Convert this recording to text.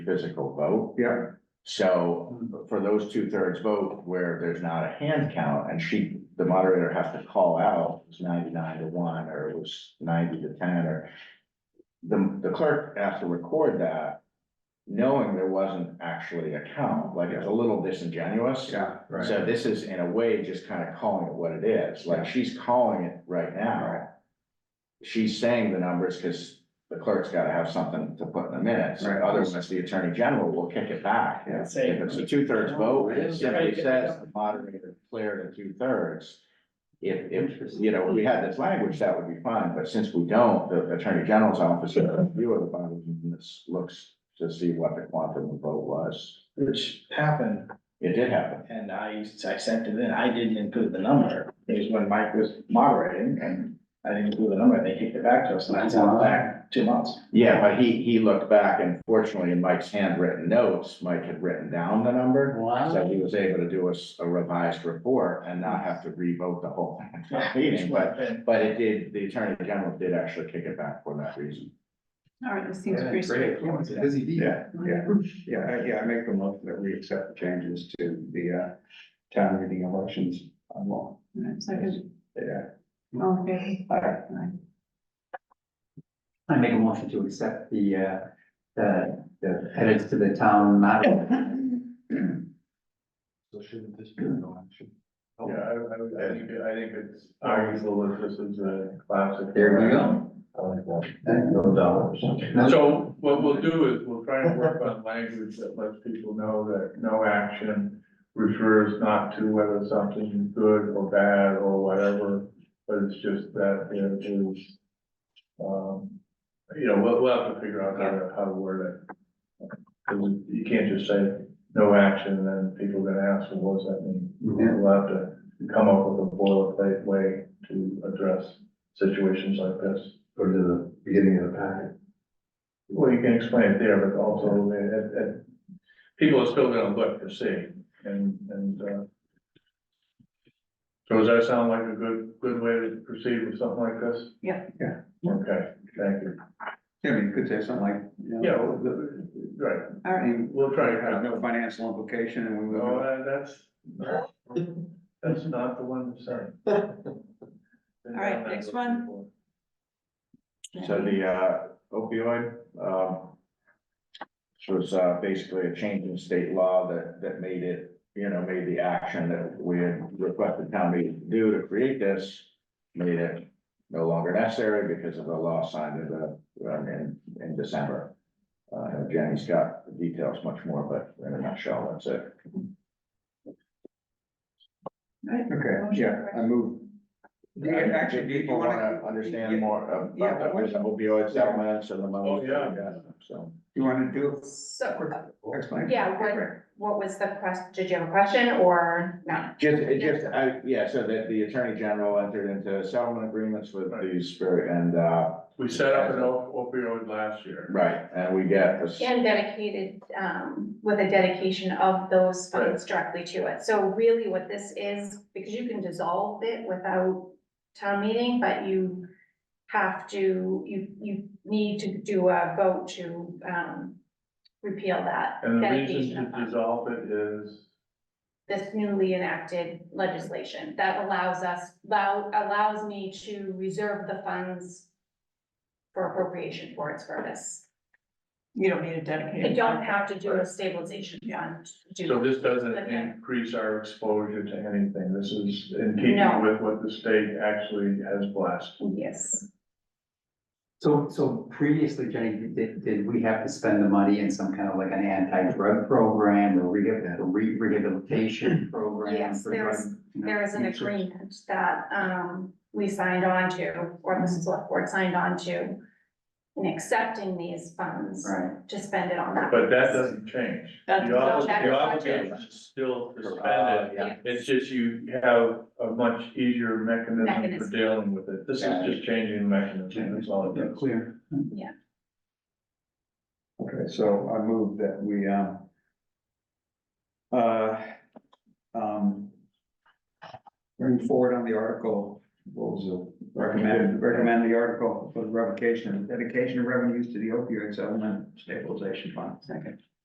physical vote. Yeah, So for those two thirds vote where there's not a hand count and she, the moderator has to call out, it's ninety-nine to one, or it was ninety to ten, or. The, the clerk has to record that, knowing there wasn't actually a count, like it's a little disingenuous. yeah, right. So this is in a way just kind of calling it what it is, like she's calling it right now. She's saying the numbers because the clerk's got to have something to put in the minutes, Right. otherwise the attorney general will kick it back. Yeah. Say, If it's a two thirds vote, it Right. simply says the moderator declared a two thirds. If, if, you know, if we had this language, that would be fine, but since we don't, the attorney general's office, will review of the body, and this looks to see what the quantum of vote was. which happened, It did happen, and I, I sent it in, I didn't include the number, it was when Mike was moderating, and I didn't include the number, they kicked it back to us, and that's out back two months. yeah, but he, he looked back and fortunately in Mike's handwritten notes, Mike had written down the number. So he was able to do us a revised report and not have to revote the whole Yeah, meeting, but and But it did, the attorney general did actually kick it back for that reason. All right, this seems pretty straightforward. busy Yeah, yeah, yeah, I- yeah, I make the motion that we accept the changes to the uh town meeting elections on law. All right, Second, Yeah. all in favor? Aye. I make a motion to accept the, uh, the, the edits to the town model. So shouldn't this be no action? Yeah, I, I would, I think, I think it's arguable that this is a classic. go. I like that. No dollars. So what we'll do is we'll try and work on language that lets people know that no action refers not to whether something is good or bad or whatever, but it's just that there is, um, you know, we'll, we'll have to figure out how to, how to word it. 'Cause you can't just say no action and then people are gonna ask, well, what does that mean? Yeah. We'll have to come up with a boilerplate way to address situations like this. Go to the beginning of the packet. Well, you can explain it there, but also, uh, uh, people are still gonna look to see, and, and, uh. So does that sound like a good, good way to proceed with something like this? Yeah. Yeah. Okay, thank you. Yeah, I mean, you could say something like, you know. Yeah, well, the- right, All right, we'll try to There's have, no no, financial implication and we will. uh, that's, that's not the one that's saying. All right, next one. So the uh, opioid, um. which was uh, basically a change in state law that, that made it, you know, made the action that we had requested town meeting to do to create this. Made it no longer necessary because of the law signed in the, uh, in, in December. Uh, Jenny's got the details much more, but in a nutshell, that's it. all right. Okay, yeah, I move. Do you- Actually, do you- do you People wanna? wanna understand more Yeah, but about what- the opioid settlements and the money. Oh, yeah. So. You wanna do So, it? Explain. yeah, what, what was the question? Did you have a question or not? Just, it just, I, yeah, so that the attorney general entered into settlement agreements with these, very- and, uh, We set up an op- opioid last year, right, and we get. a- And dedicated, um, with a dedication of those funds directly to it. So really what this is, because you can dissolve it without town meeting, but you have to, you, you need to do a vote to, um, repeal that and the dedication reason of to funds. dissolve it is. this newly enacted legislation that allows us, allow, allows me to reserve the funds for appropriation for its purpose. You don't need a I dedicated. don't have to do a stabilization fund. to do So that. this doesn't Okay. increase our exposure to anything. This is in keeping No. with what the state actually has blessed. Yes, So, so previously, Jenny, did, did we have to spend the money in some kind of like an anti-drug program or rehab, re- rehabilitation program? Yes, for drug, there's- you know, there is an users? agreement that, um, we signed on to, or the select board signed on to in accepting these funds Right, to spend it on that. But that purpose. doesn't change. That's- The obli- that the does not obligation change. is still to Uh, spend it. yeah. It's just you have a much easier mechanism for Mechanism. dealing with it. This is Yeah. just changing the mechanism. That's all it Yeah, does. clear. Okay, so I move that we, um. Uh, um. Bring forward on the article, what was it, recommend, recommend the article for the revocation, dedication of revenues to the opioid settlement stabilization fund. Second,